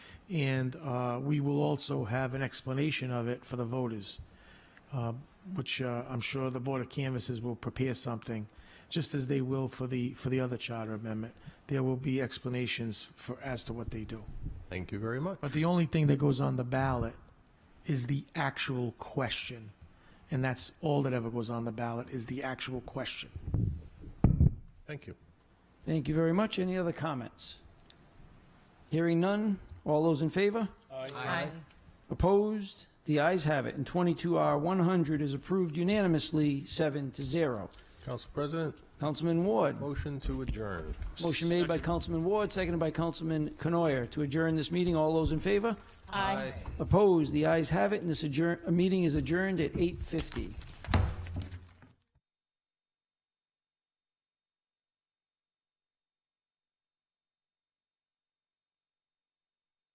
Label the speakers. Speaker 1: And uh, we will also have an explanation of it for the voters, uh, which uh, I'm sure the Board of Canvassers will prepare something, just as they will for the, for the other charter amendment. There will be explanations for, as to what they do.
Speaker 2: Thank you very much.
Speaker 1: But the only thing that goes on the ballot is the actual question. And that's all that ever goes on the ballot is the actual question.
Speaker 2: Thank you.
Speaker 3: Thank you very much. Any other comments? Hearing none. All those in favor?
Speaker 4: Aye.
Speaker 3: Opposed? The ayes have it. And 22R100 is approved unanimously, 7 to 0.
Speaker 2: Council President,
Speaker 3: Councilman Ward.
Speaker 2: motion to adjourn.
Speaker 3: Motion made by Councilman Ward, seconded by Councilman Canoyer to adjourn this meeting. All those in favor?
Speaker 4: Aye.
Speaker 3: Opposed? The ayes have it, and this adjourn, uh, meeting is adjourned at 8:50.